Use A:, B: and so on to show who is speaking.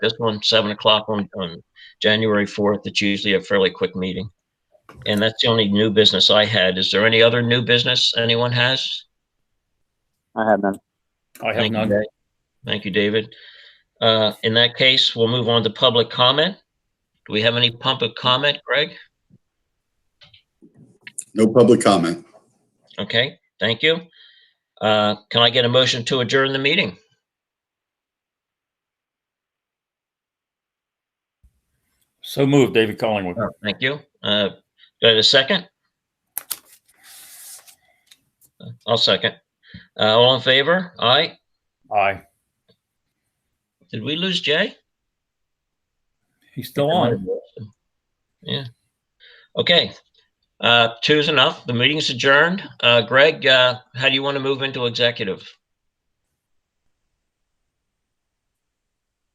A: This one, seven o'clock on, on January fourth. It's usually a fairly quick meeting. And that's the only new business I had. Is there any other new business anyone has?
B: I have none.
C: I have
A: Thank you,
C: none.
A: Dave. Thank you, David. Uh, in that case, we'll move on to public comment. Do we have any public comment, Greg?
D: No public comment.
A: Okay, thank you. Uh, can I get a motion to adjourn the meeting?
C: So moved, David Collingwood.
A: Oh, Thank you. Uh, do I have a second? I'll second. Uh, all in favor? Aye.
C: Aye.
A: Did we lose Jay?
C: He's still on.
A: Yeah. Okay. Uh, two's enough. The meeting's adjourned. Uh, Greg, uh, how do you want to move into executive?